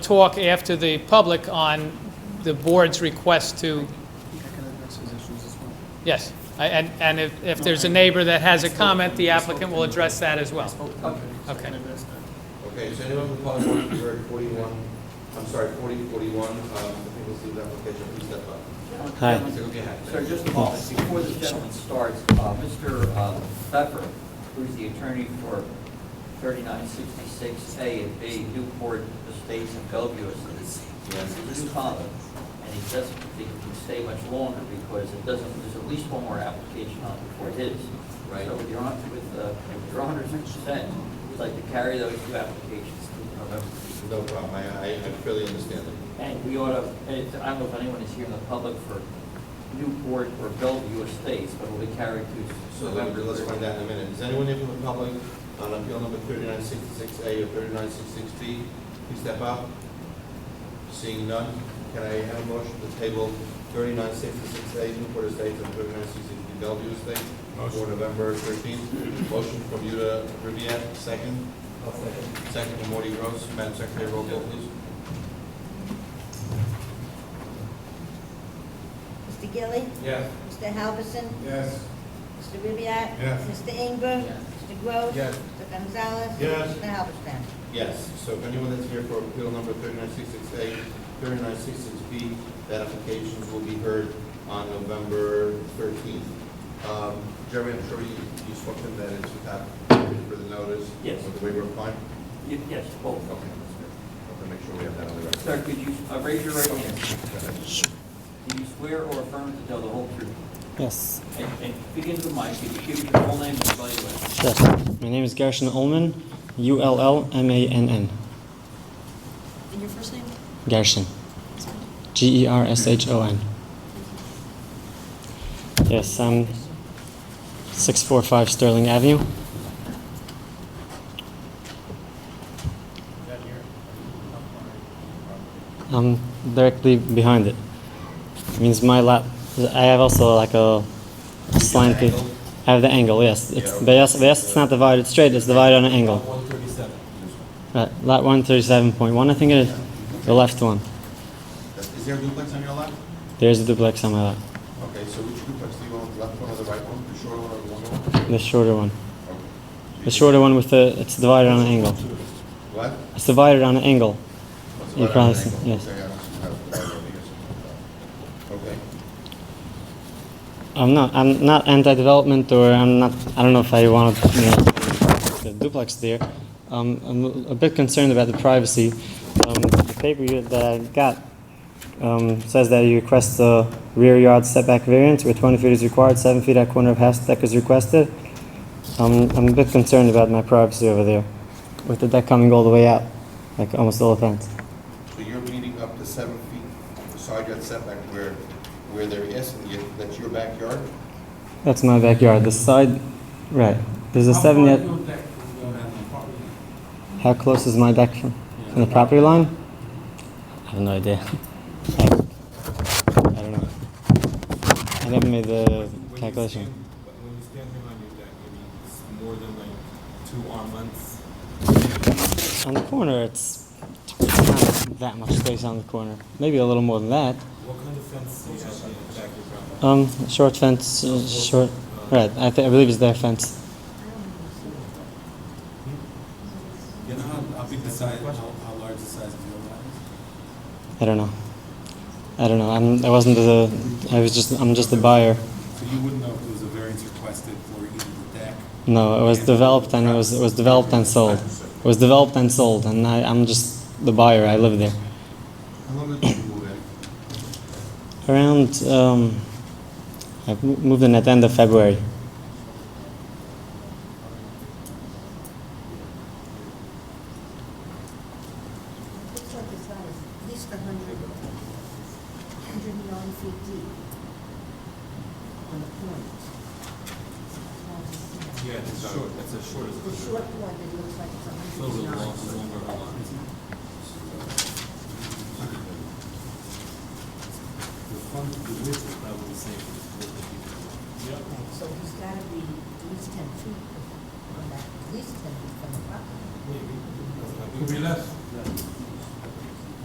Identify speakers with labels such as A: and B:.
A: talk after the public on the board's request to,
B: think I can address those issues as well.
A: yes. I- And, and if, if there's a neighbor that has a comment, the applicant will address that as well.
B: Oh, Okay.
A: Okay.
C: Okay, is anyone from the public want to be heard forty-one, I'm sorry, forty, forty-one, um, the people see the application, please step up.
D: Hi.
C: Please go ahead.
E: Sir, just a moment, before this gentleman starts, uh, Mr. uh, Pfeffer, who's the attorney for 3966A and B Newport Estates in Bellevue, is is his father, and he doesn't think he can stay much longer because it doesn't, there's at least one more application on before his.
C: Right.
E: So with your, hon- with, uh, with your 100%, we'd like to carry those two applications to November.
C: No problem, I, I I fairly understand it.
E: And we ought to, and I don't know if anyone is here in the public for Newport or Bellevue Estates, but it'll be carried to
C: So let-
E: November.
C: let's find out in a minute. Is anyone here from the public on appeal number thirty-nine sixty-six A or thirty-nine sixty-six B? Please step up. Seeing none, can I have a motion to table thirty-nine sixty-six A Newport Estates and thirty-nine sixty-six B Bellevue Estates for November thirteenth? Motion from Yuda Riviere, second? second. from Morty Gross. Madam Secretary, roll call, please.
F: Mr. Gilly,
C: Yes.
F: Mr. Halverson,
C: Yes.
F: Mr. Ribbiat.
C: Yes.
F: Mr. Inger.
E: Yes.
F: Mr. Gross.
C: Yes.
F: Mr. Gonzalez.
C: Yes.
F: Mr. Halverson.
C: Yes, so if anyone that's here for appeal number thirty-nine sixty-six A, thirty-nine sixty-six B, that application will be heard on November thirteenth. Um, Jeremy, I'm sure you, you spoke to that, it's without further notice.
E: Yes.
C: With the waiver of fine? Oh,
E: Y- Yes, both.
C: Okay, that's good. Okay, make sure we have that on the record.
E: Sir, could you uh, raise your right hand?
C: Go ahead.
E: Do you swear or affirm to tell the whole truth?
D: Yes,
E: And and begin with the mic, if you give your full name and spell your last.
D: sure. My name is Gershon Ullman, U L L M A N N.
G: And your first name?
D: Gershon. G E R S H O N. Yes, I'm 645 Sterling Avenue. I'm directly behind it. Means my lap. I have also like a slanted.
C: angle?
D: I have the angle. Yes, it's
C: Yeah.
D: but yes, but yes, it's not divided straight. It's divided on an angle.
C: One thirty-seven.
D: Right, lot one thirty-seven point one, I think it is, the left one.
C: Is there a duplex on your left?
D: There's a duplex on my lot,
C: Okay, so which duplex do you want, left one or the right one, the shorter one or the longer one?
D: the shorter one.
C: Okay.
D: The shorter one with the, it's divided on an angle.
C: What?
D: It's divided on an angle.
C: That's
D: You
C: what I
D: probably
C: think.
D: see- yes.
C: Okay, I don't see how it's divided over here, so, uh, Okay,
D: I'm not, I'm not anti-development or I'm not, I don't know if I want to, you know, the duplex there. Um, I'm a bit concerned about the privacy. Um, the paper you- that I got, um, says that you request a rear yard setback variance where twenty feet is required, seven feet at corner of house deck is requested. Um, I'm a bit concerned about my privacy over there, with the deck coming all the way out, like almost all the fence.
C: so you're meeting up to seven feet side yard setback where, where they're asking you, that's your backyard?
D: That's my backyard, the side, right, there's a seven yard. How close is my deck from, from the property line? I have no idea. I, I don't know. I never made the calculation.
H: When you stand him on your deck, I mean, it's more than like two arm lengths.
D: On the corner, it's, it's not that much space on the corner. Maybe a little more than that.
H: What kind of fence do you have on the deck in front of?
D: Um, short fence, uh, short, right, I, th- I believe it's their fence.
H: You know how, how big the size, how, how large the size of your lot is?
D: I don't know. I don't know, I'm, I wasn't the, I was just, I'm just the buyer.
H: So you wouldn't know if there was a variance requested for either the deck?
D: No, it was developed and it was, it was developed and sold. It was developed and sold, and I, I'm just the buyer. I live there.
C: How long did you move in?
D: Around, um, I mo- moved in at the end of February.
F: Looks like it's about at least a hundred, hundred and nine feet deep on the corners.
H: Yeah, it's short, that's as short as
F: The short one, it looks like it's
H: It's
F: a
H: a little
F: hundred and nine.
H: long, longer a lot. The fun, the width is probably the same for the four people.
F: Okay, So he's got to be at least ten feet from that, at least ten feet from the property.
H: Maybe. Could be less.